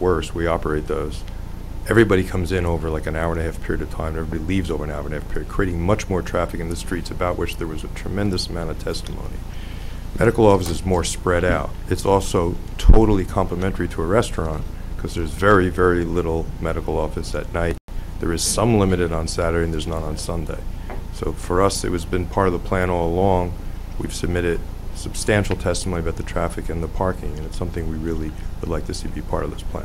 worse, we operate those. Everybody comes in over like an hour and a half period of time, everybody leaves over an hour and a half period, creating much more traffic in the streets about which there was a tremendous amount of testimony. Medical office is more spread out. It's also totally complementary to a restaurant because there's very, very little medical office at night. There is some limited on Saturday and there's none on Sunday. So for us, it was been part of the plan all along. We've submitted substantial testimony about the traffic and the parking, and it's something we really would like to see be part of this plan.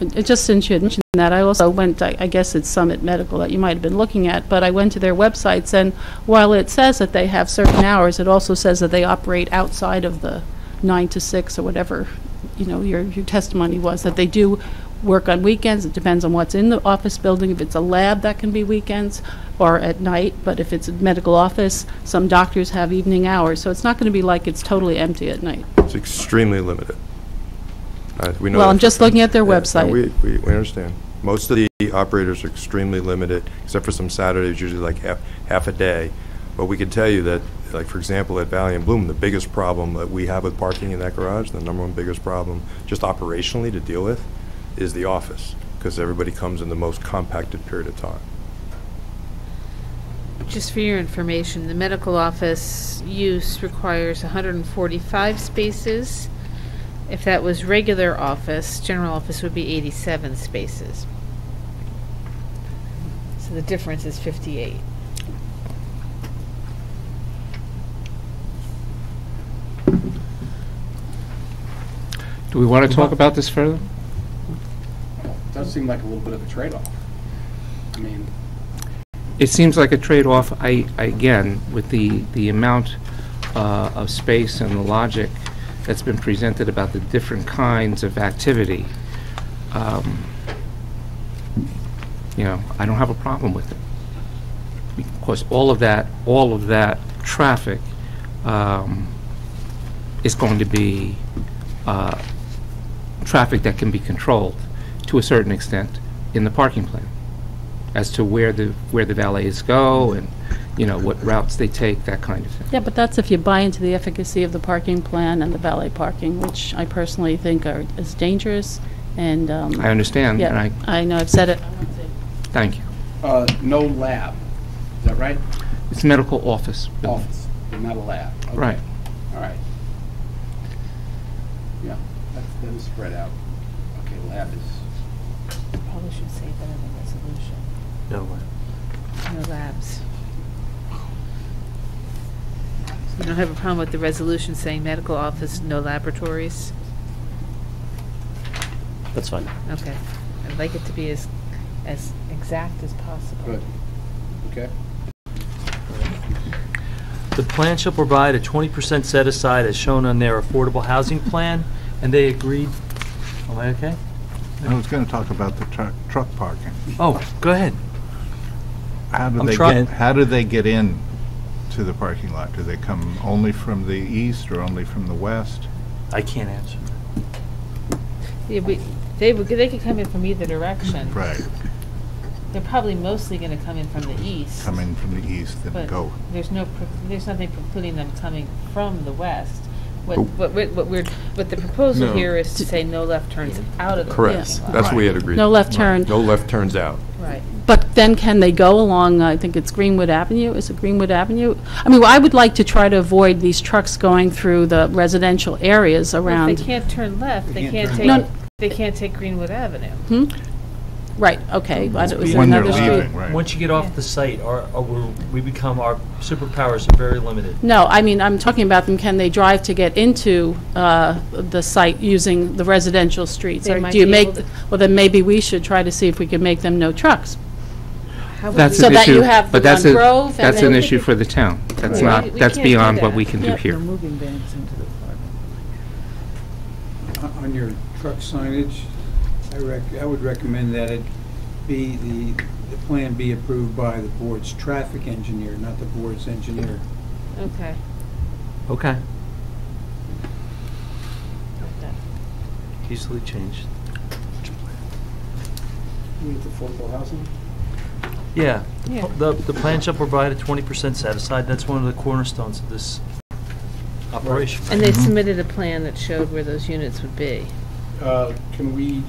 And- and Just since you had mentioned that, I also went, I I guess it's Summit Medical that you might have been looking at, but I went to their websites, and while it says that they have certain hours, it also says that they operate outside of the nine to six or whatever, you know, your your testimony was, that they do work on weekends. It depends on what's in the office building. If it's a lab, that can be weekends or at night, but if it's a medical office, some doctors have evening hours, so it's not going to be like it's totally empty at night. It's extremely limited. Uh, we know Well, that I'm for- just looking at their Yeah, no, website. We, we we understand. Most of the operators are extremely limited, except for some Saturdays, usually like half, half a day. But we can tell you that, like, for example, at Valley and Bloom, the biggest problem that we have with parking in that garage, the number one biggest problem, just operationally to deal with, is the office, because everybody comes in the most compacted period of time. Just for your information, the medical office use requires 145 spaces. If that was regular office, general office would be 87 spaces. So the difference is 58. Do we want to talk about this further? Does seem like a little bit of a trade-off. I mean, It seems like a trade-off, I, I- again, with the, the amount uh, of space and the logic that's been presented about the different kinds of activity. Um, You know, I don't have a problem with it. Because all of that, all of that traffic um, is going to be uh, traffic that can be controlled to a certain extent in the parking plan. as to where the, where the valets go and, you know, what routes they take, that kind of thing. Yeah, but that's if you buy into the efficacy of the parking plan and the valet parking, which I personally think are, is dangerous, and, um... I understand, and Yeah, I, I know, I've said it. thank you. uh, no lab, is that right? It's medical office. building. Office, but not a lab. Okay. Right. All right. Yeah, that's, that is spread out. Okay, lab is, Probably should say that in the resolution. No labs. No labs. You don't have a problem with the resolution saying medical office, no laboratories? That's fine. Okay. I'd like it to be as, as exact as possible. good, okay? The plan shall provide a 20% set aside as shown on their affordable housing plan, and they agreed, am I okay? I was going to talk about the truck, truck parking. Oh, go ahead. How do I'm they trying- get, how do they get in to the parking lot? Do they come only from the east or only from the west? I can't answer. Yeah, we, they would, they could come in from either direction. Right, They're probably mostly gonna come in from the east. come in from the east and But go. there's no, pre- there's nothing precluding them coming from the west. What, Oh. what, we're- what we're, what the proposal No. here is to say no left turns out of the Correct. parking lot. That's what we had agreed. No left turn. No left turns out. Right. But then can they go along, I think it's Greenwood Avenue, is it Greenwood Avenue? I mean, I would like to try to avoid these trucks going through the residential areas Well, If they around. can't turn left, they They can't can't take, turn left. they can't take Greenwood Avenue. Right, okay, but it was When they're another leaving, street. right. Once you get off the site, our, our- we're- we become, our superpowers are very limited. No, I mean, I'm talking about them, can they drive to get into uh, the site using the residential streets? They Or might do you be make? able to- Well, then maybe we should try to see if we can make them no trucks. How would That's we- So an that you issue- have the but that's one a- grove and That's then- an issue for the town. That's Right. not, We- we that's can't do beyond what that. we can do here. moving vans into the apartment. On your truck signage, I rec, I would recommend that it be, the, the plan be approved by the board's traffic engineer, not the board's engineer. Okay. Okay. Easily changed. With affordable housing? Yeah. the Yeah. pl- The, the plan shall provide a 20% set aside. That's one of the cornerstones of this operation. Mm-hmm. And they submitted a plan that showed where those units would be. Uh, can we